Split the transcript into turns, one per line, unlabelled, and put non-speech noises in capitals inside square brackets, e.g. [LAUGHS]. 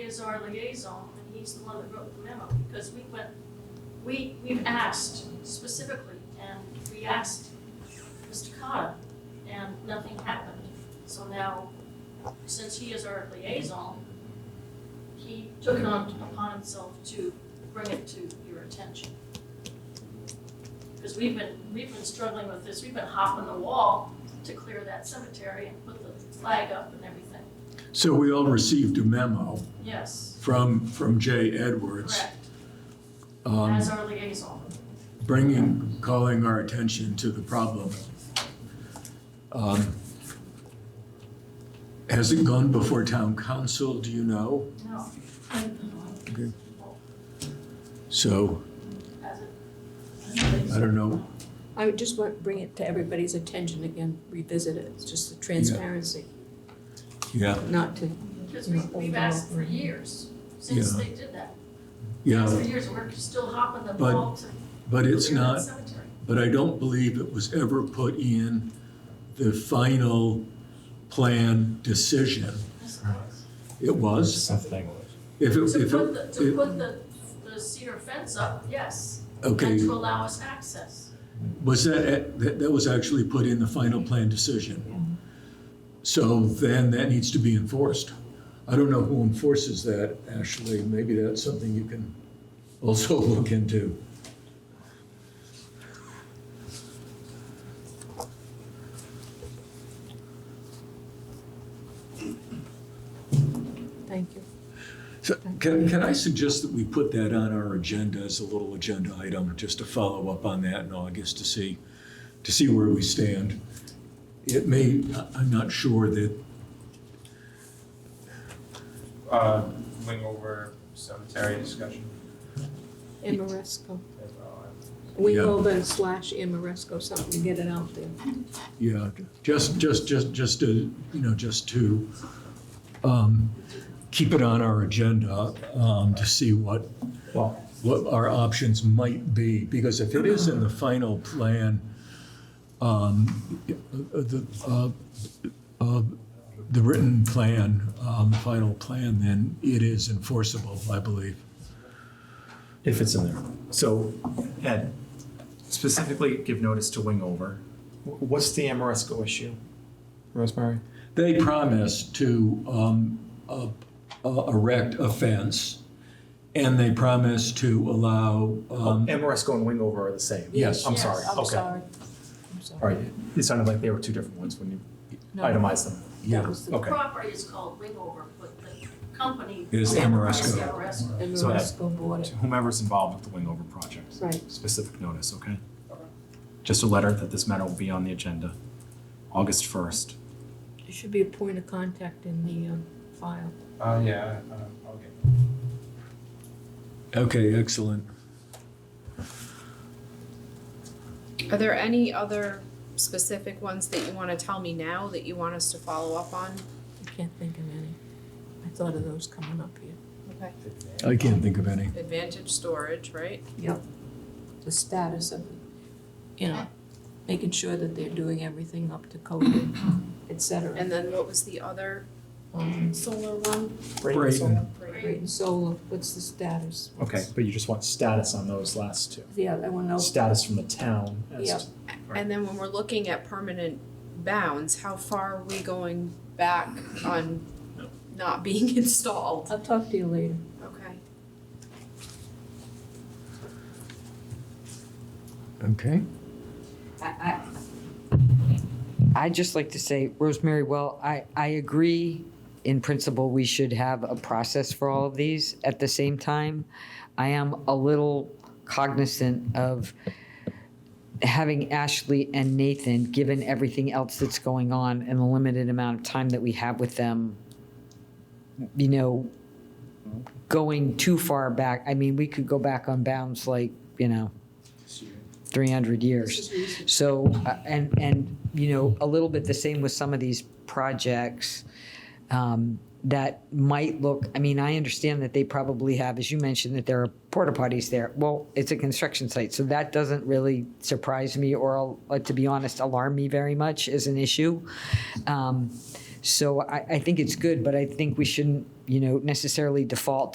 is our liaison, and he's the one that wrote the memo, because we went, we, we've asked specifically, and we asked Mr. Cotta, and nothing happened. So now, since he is our liaison, he took it on upon himself to bring it to your attention. Because we've been, we've been struggling with this, we've been hopping the wall to clear that cemetery and put the flag up and everything.
So we all received a memo
Yes,
from, from Jay Edwards,
correct,
um,
as our liaison.
bringing, calling our attention to the problem. Um, Has it gone before town council, do you know?
No.
Okay. So,
As it-
I don't know,
I would just want to bring it to everybody's attention again, revisit it, it's just the transparency,
yeah,
not to,
Because we, we've asked for years, since
Yeah.
they did that. Asked
yeah,
For years, we're still hopping the
But
wall to
but it's
clear that
not,
cemetery.
but I don't believe it was ever put in the final plan decision.
Yes, it was.
It was,
Something.
if it,
To
if
put the,
it,
to
it-
put the, the cedar fence up, yes, and
okay,
to allow us access.
was that, that, that was actually put in the final plan decision. So then that needs to be enforced. I don't know who enforces that, Ashley, maybe that's something you can also [LAUGHS] look into.
thank you.
So can, can I suggest that we put that on our agenda as a little agenda item, just to follow up on that in August to see, to see where we stand? It may, I- I'm not sure that,
Uh, wing over cemetery discussion
Amoresco,
as well.
Yeah.
Wingover slash Amoresco, something to get it out there.
Yeah, just, just, just, just to, you know, just to um, keep it on our agenda um, to see what,
Well,
what our options might be. Because if it is in the final plan, um, the, uh, uh, the written plan, um, final plan, then it is enforceable, I believe.
If it's in there. So, Ed, specifically give notice to wing over.
wh- what's the Amoresco issue, Rosemary?
Um,
They promised to um, uh, uh, erect a fence, and they promised to allow,
Oh,
um,
Amoresco and wing over are the same.
Yes.
I'm
Yes.
sorry.
I'm
okay.
sorry. I'm
All
sorry.
right. It sounded like they were two different ones when you
No,
itemized them.
That
yeah,
was the
The
Okay.
property is called Wingover, but the company.
Is
Amoresco.
Amoresco.
So that-
Amoresco bought it,
To whomever's involved with the wing over project,
right,
specific notice, okay? Just a letter that this matter will be on the agenda, August 1st.
there should be a point of contact in the um, file.
Uh, yeah, uh, I'll get.
okay, excellent.
Are there any other specific ones that you wanna tell me now that you want us to follow up on?
I can't think of any, I thought of those coming up here.
Okay.
I can't think of any.
Advantage storage, right?
Yep. The status of, you know, making sure that they're doing everything up to code, et cetera.
And then what was the other
Um,
solar one?
Brayden.
Great and solar, what's the status?
Okay, but you just want status on those last two.
Yeah, I wanna know,
Status from the town as
Yep.
to-
And then when we're looking at permanent bounds, how far are we going back on not being [LAUGHS] installed?
I'll talk to you later.
Okay.
Okay.
I, I- I'd just like to say, Rosemary, well, I, I agree in principle, we should have a process for all of these. At the same time, I am a little cognizant of having Ashley and Nathan, given everything else that's going on and the limited amount of time that we have with them, you know, going too far back. I mean, we could go back on bounds like, you know, 300 years. So, uh, and, and, you know, a little bit the same with some of these projects um, that might look, I mean, I understand that they probably have, as you mentioned, that there are porta potties there. Well, it's a construction site, so that doesn't really surprise me or, uh, to be honest, alarm me very much as an issue. Um, So I, I think it's good, but I think we shouldn't, you know, necessarily default